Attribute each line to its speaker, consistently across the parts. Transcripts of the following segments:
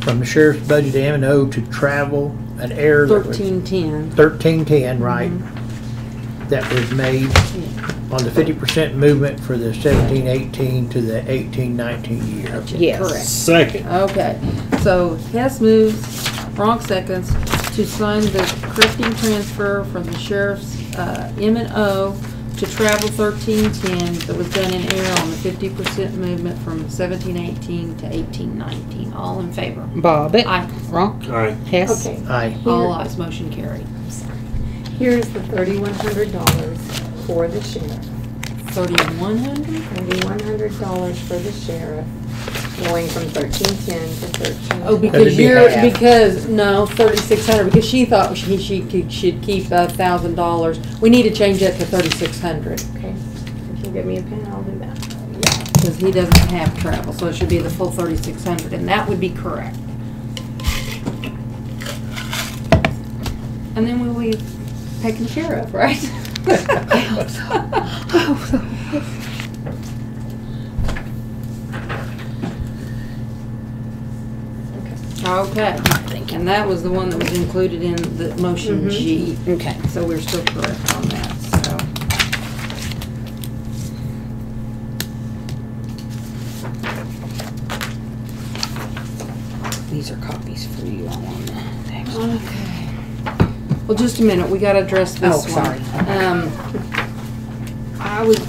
Speaker 1: from the sheriff's budget to M and O to travel, an error that was.
Speaker 2: Thirteen ten. Mm-hmm.
Speaker 1: Thirteen-ten, right? That was made on the fifty percent movement for the seventeen-eighteen to the eighteen-nineteen year.
Speaker 2: Yes.
Speaker 3: Second.
Speaker 2: Correct. Okay. So Hess moves, Ronk seconds, to sign the correcting transfer from the sheriff's uh, M and O to travel thirteen ten that was done in error on the fifty percent movement from seventeen eighteen to eighteen nineteen. All in favor?
Speaker 4: Bobbit.
Speaker 2: Aye.
Speaker 4: Ronk.
Speaker 3: Aye.
Speaker 4: Hess.
Speaker 5: Okay,
Speaker 1: Aye.
Speaker 2: All ayes, motion carried.
Speaker 5: here's the thirty-one hundred dollars for the sheriff.
Speaker 2: Thirty-one hundred?
Speaker 5: Thirty-one hundred dollars for the sheriff, going from thirteen-ten to thirteen.
Speaker 2: Oh,
Speaker 1: That'd
Speaker 2: because
Speaker 1: be
Speaker 2: you're,
Speaker 1: half.
Speaker 2: because, no, thirty-six hundred, because she thought she, she could, she'd keep a thousand dollars. We need to change that to thirty-six hundred,
Speaker 5: Okay, if you give me a pen, I'll do that.
Speaker 2: because he doesn't have travel, so it should be the full thirty-six hundred, and that would be correct. And then we'll be taken care of, right? I hope so. I hope so. Okay, and that was the one that was included in the motion G.
Speaker 4: Okay.
Speaker 2: So we're still correct on that, so.
Speaker 4: These are copies for you all on the
Speaker 2: Okay. Well, just a minute, we gotta address this
Speaker 4: Oh,
Speaker 2: one.
Speaker 4: sorry.
Speaker 2: Um, I would,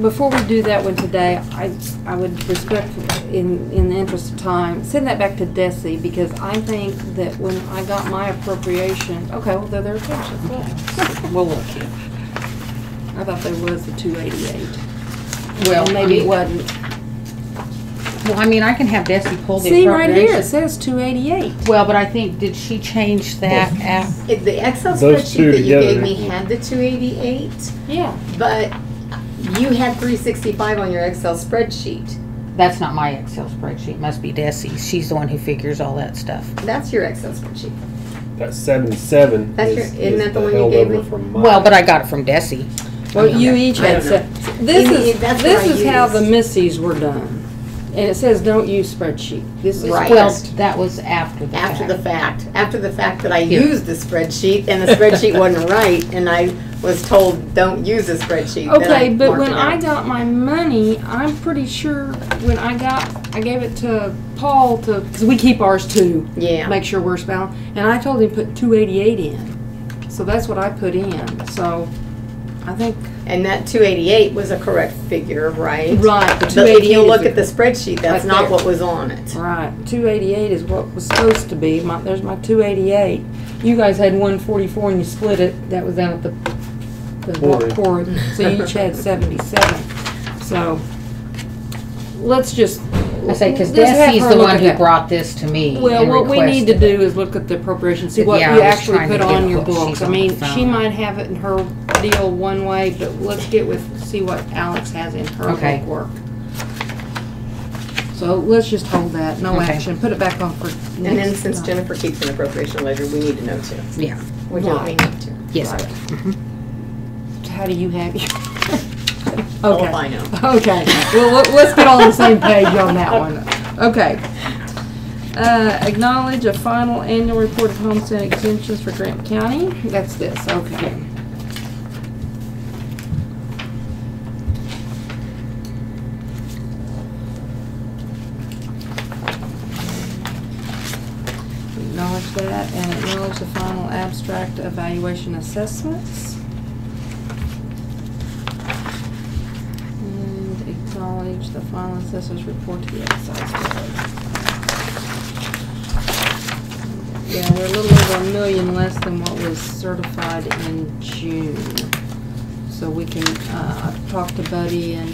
Speaker 2: before we do that one today, I, I would respect, in, in the interest of time, send that back to Desi, because I think that when I got my appropriation, okay, well, they're their attention.
Speaker 4: We'll look here.
Speaker 2: I thought there was the two eighty-eight.
Speaker 4: Well,
Speaker 2: Maybe it wasn't.
Speaker 4: Well, I mean, I can have Desi pull the
Speaker 2: See, right here, it
Speaker 4: appropriations.
Speaker 2: says two eighty-eight.
Speaker 4: Well, but I think, did she change that af,
Speaker 5: If the Excel
Speaker 3: Those
Speaker 5: spreadsheet
Speaker 3: two
Speaker 5: that you
Speaker 3: together.
Speaker 5: gave me had the two eighty-eight,
Speaker 2: Yeah.
Speaker 5: but you had three sixty-five on your Excel spreadsheet.
Speaker 4: that's not my Excel spreadsheet, must be Desi's. She's the one who figures all that stuff.
Speaker 5: That's your Excel spreadsheet.
Speaker 3: That seventy-seven
Speaker 5: That's
Speaker 3: is,
Speaker 5: your- isn't
Speaker 3: is
Speaker 5: that the one you
Speaker 3: held
Speaker 5: gave
Speaker 3: over
Speaker 5: me?
Speaker 3: from mine.
Speaker 4: Well, but I got it from Desi.
Speaker 2: Well, you each had, se- this
Speaker 5: Amy,
Speaker 2: is,
Speaker 5: that's what I
Speaker 2: this is how the
Speaker 5: used.
Speaker 2: missies were done. And it says, don't use spreadsheet. This is.
Speaker 5: Right.
Speaker 4: Well, that was after the
Speaker 5: After the
Speaker 4: fact.
Speaker 5: fact, after the fact that I
Speaker 4: Here.
Speaker 5: used the spreadsheet and the spreadsheet wasn't right and I was told, don't use the spreadsheet. then I
Speaker 2: Okay, but
Speaker 5: marked
Speaker 2: when
Speaker 5: it
Speaker 2: I
Speaker 5: out.
Speaker 2: got my money, I'm pretty sure when I got, I gave it to Paul to, cause we keep ours too.
Speaker 5: Yeah.
Speaker 2: Make sure we're spelling, and I told him put two eighty-eight in. So that's what I put in, so I think,
Speaker 5: And that two eighty-eight was a correct figure, right?
Speaker 2: right, the two
Speaker 5: But if
Speaker 2: eighty-eight
Speaker 5: you look at the spreadsheet, that's
Speaker 2: Right
Speaker 5: not
Speaker 2: there.
Speaker 5: what was on it.
Speaker 2: Right, two eighty-eight is what was supposed to be, my, there's my two eighty-eight. You guys had one forty-four and you split it, that was down at the, the
Speaker 3: Quarry.
Speaker 2: quarry, so you each had seventy-seven, so. Let's just.
Speaker 4: I say, because
Speaker 2: let's have
Speaker 4: Desi's
Speaker 2: her
Speaker 4: the
Speaker 2: look
Speaker 4: one
Speaker 2: at
Speaker 4: who
Speaker 2: that.
Speaker 4: brought this to me
Speaker 2: Well,
Speaker 4: and
Speaker 2: what we need to
Speaker 4: requested it.
Speaker 2: do is look at the appropriation, see what you
Speaker 4: Yeah, I was
Speaker 2: actually
Speaker 4: trying to
Speaker 2: put
Speaker 4: get
Speaker 2: on your
Speaker 4: what she's
Speaker 2: books. I
Speaker 4: on the
Speaker 2: mean, she
Speaker 4: phone.
Speaker 2: might have it in her deal one way, but let's get with, see what Alex has in her
Speaker 4: Okay.
Speaker 2: bookwork. So let's just hold that, no
Speaker 4: Okay.
Speaker 2: action, put it back on for next
Speaker 5: And then since
Speaker 2: time.
Speaker 5: Jennifer keeps an appropriation ledger, we need to know too.
Speaker 4: Yeah, Mm-hmm.
Speaker 5: We don't, we need to.
Speaker 4: yes.
Speaker 2: Right. How do you have your?
Speaker 5: Oh,
Speaker 2: Okay.
Speaker 5: if I know.
Speaker 2: Okay, well, let- let's get on the same page on that one. Okay. Uh, acknowledge a final annual report of homestead exemptions for Grant County. That's this, okay. Acknowledge that and acknowledge the final abstract evaluation assessments. And acknowledge the final assessor's report to the excise board. Yeah, we're a little over a million less than what was certified in June. So we can, uh, I talked to Buddy and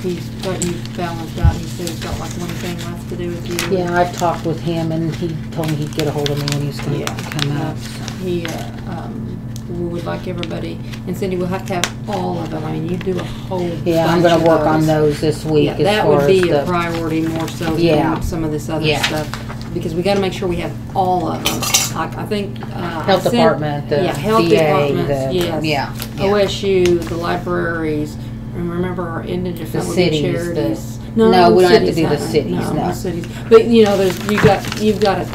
Speaker 2: he's, but you balanced out, he said he's got like one thing left to do with you.
Speaker 4: Yeah, I've talked with him and he told me he'd get a hold of me when he was gonna
Speaker 2: Yeah.
Speaker 4: come up.
Speaker 2: He, uh, um, we would like everybody, and Cindy, we'll have to have all of them, I mean, you do a whole bunch of those.
Speaker 4: Yeah, I'm gonna work on those this week
Speaker 2: Yeah,
Speaker 4: as
Speaker 2: that
Speaker 4: far
Speaker 2: would
Speaker 4: as
Speaker 2: be a
Speaker 4: the,
Speaker 2: priority more so
Speaker 4: Yeah.
Speaker 2: than some of this other
Speaker 4: Yeah.
Speaker 2: stuff, because we gotta make sure we have all of them. I, I think, uh. I
Speaker 4: health
Speaker 2: sent-
Speaker 4: department, the
Speaker 2: Yeah, health
Speaker 4: VA,
Speaker 2: departments,
Speaker 4: the,
Speaker 2: yes.
Speaker 4: yeah. yeah.
Speaker 2: OSU, the libraries, and remember our indigent
Speaker 4: The
Speaker 2: that would be
Speaker 4: cities, the-
Speaker 2: charities.
Speaker 4: no, we don't have to
Speaker 2: cities,
Speaker 4: do the
Speaker 2: uh-uh,
Speaker 4: cities, no.
Speaker 2: cities. But, you know, there's, you got, you've got a